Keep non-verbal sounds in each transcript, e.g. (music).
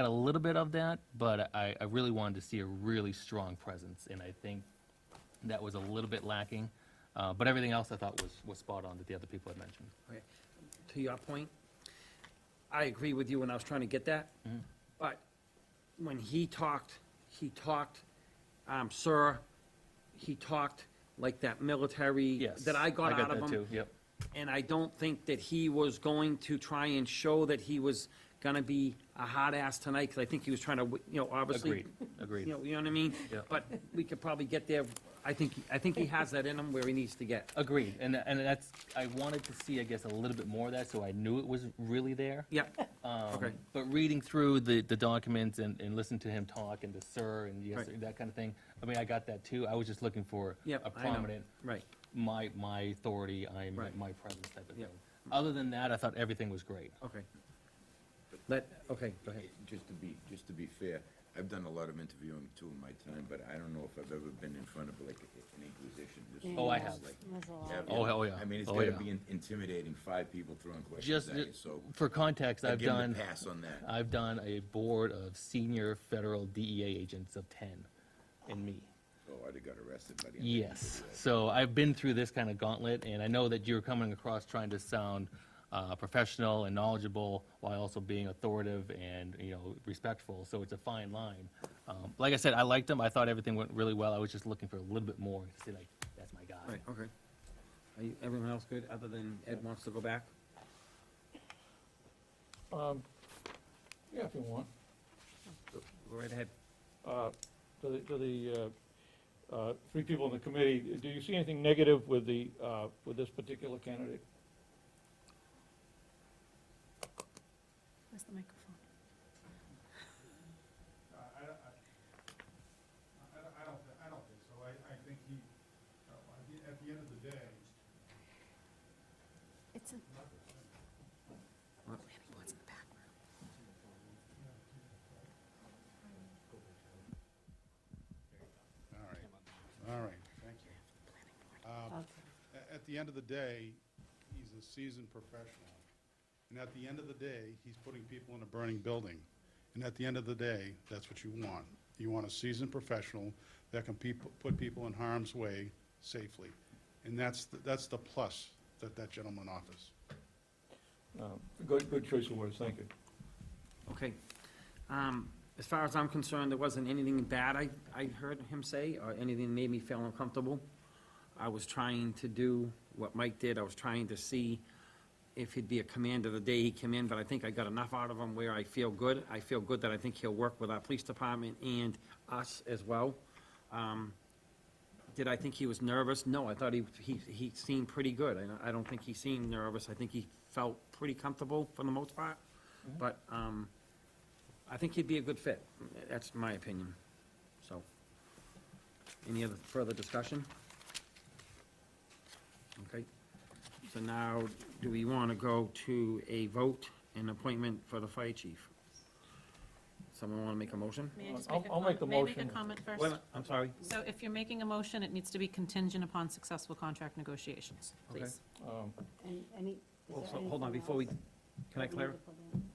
had a little bit of that, but I, I really wanted to see a really strong presence, and I think that was a little bit lacking. Uh, but everything else I thought was, was spot on that the other people had mentioned. Okay, To your point, I agree with you, and I was trying to get that. Mm-hmm. But when he talked, he talked, um, sir, he talked like that military. Yes. That I got out of him. that too, Yep. And I don't think that he was going to try and show that he was gonna be a hot ass tonight, because I think he was trying to, wi- you know, obviously. Agreed, agreed. (laughs) You know, you know what I mean? Yeah. But we could probably get there. I think, I think he has that in him where he needs to get. Agreed, and, and that's, I wanted to see, I guess, a little bit more of that, so I knew it was really there. Yeah, Um, Okay. But reading through the, the documents and, and listening to him talk and the sir and yes, Right. that kind of thing, I mean, I got that too. I was just looking for Yep, a I know. prominent, right. my, my authority, I'm, Right. my presence type of thing. Yep. Other than that, I thought everything was great. Okay. Let, okay, go ahead. Just to be, just to be fair, I've done a lot of interviewing too in my time, but I don't know if I've ever been in front of like an inquisition. This is Oh, I just have. like- There's a lot. Yeah, Oh, hell yeah. I mean, it's Oh, gotta yeah. be in- intimidating, five people throwing questions Just, at you, so. for context, I I've give 'em done, a pass on that. I've done a board of senior federal DEA agents of ten, and me. So I'd have got arrested by the end. Yes. So I've been through this kind of gauntlet, and I know that you're coming across trying to sound uh, professional and knowledgeable while also being authoritative and you know respectful. So it's a fine line. Um, like I said, I liked him. I thought everything went really well. I was just looking for a little bit more to say like, that's my guy. Right, okay. Are you, everyone else good, other than Ed wants to go back? Um, Yeah, if you want. Go right ahead. Uh, To the, to the uh, uh, three people in the committee, do you see anything negative with the, uh, with this particular candidate? Where's the microphone? I, Uh, I, I- I don't, I don't, thi- I don't think so. I, I think he, uh, at the, at the end of the day, It's in. Oh, Annie, what's in the back room? all right, all right, thank you. Um, a- At the end of the day, he's a seasoned professional. And at the end of the day, he's putting people in a burning building. And at the end of the day, that's what you want. You want a seasoned professional that can peop- put people in harm's way safely. And that's, the- that's the plus that that gentleman offers. Uh, Good, good choice of words, thank you. Okay. Um, as far as I'm concerned, there wasn't anything bad I, I heard him say, or anything that made me feel uncomfortable. I was trying to do what Mike did, I was trying to see if he'd be a commander the day he came in, but I think I got enough out of him where I feel good. I feel good that I think he'll work with our police department and us as well. Um, Did I think he was nervous? No, I thought he, he, he seemed pretty good. I, I don't think he seemed nervous. I think he felt pretty comfortable for the most part. But, um, I think he'd be a good fit. That's my opinion, so. Any other further discussion? Okay, so now, do we wanna go to a vote and appointment for the fire chief? Someone wanna make a motion? May I just I'll- make a I'll make comment? the May I make a motion. comment Wait a first? minute, I'm sorry. So if you're making a motion, it needs to be contingent upon successful contract negotiations, Okay. please. Um, And any, is Well, there so- Hold on, anything before we, else can I that we need clarify? to put in?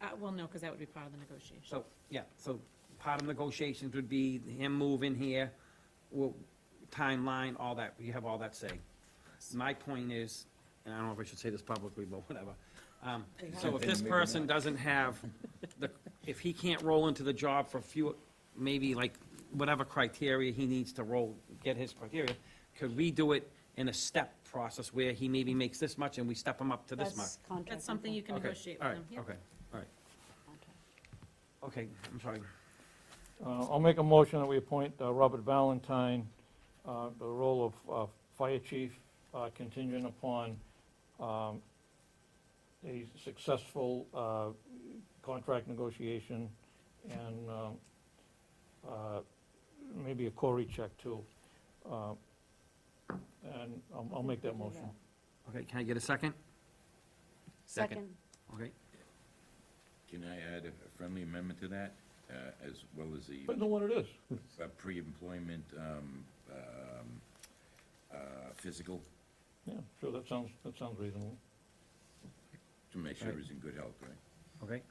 Uh, well, no, because that would be part of the negotiation. So, yeah, so part of negotiations would be him moving here, well, timeline, all that, you have all that say. My point is, and I don't know if I should say this publicly, but whatever. um, So if this person doesn't have, the, if he can't roll into the job for few, maybe like whatever criteria he needs to roll, get his criteria, could we do it in a step process where he maybe makes this much and we step him up to this much? That's contract. That's something you can Okay, negotiate all with right, them. yeah. Okay, all right, Contract. okay, I'm sorry. uh, I'll make a motion that we appoint uh, Robert Valentine uh, the role of uh, fire chief uh, contingent upon um, a successful uh, contract negotiation and um, uh, maybe a Cory check too. Uh, And I'll- I'll make that motion. Okay, can I get a second? Second. Okay. Can I add a friendly amendment to that, uh, as well as the But no one it is. uh, pre-employment, um, um, uh, physical, Yeah, sure, that sounds, that sounds reasonable. to make sure Right. he's in good health, right? Okay,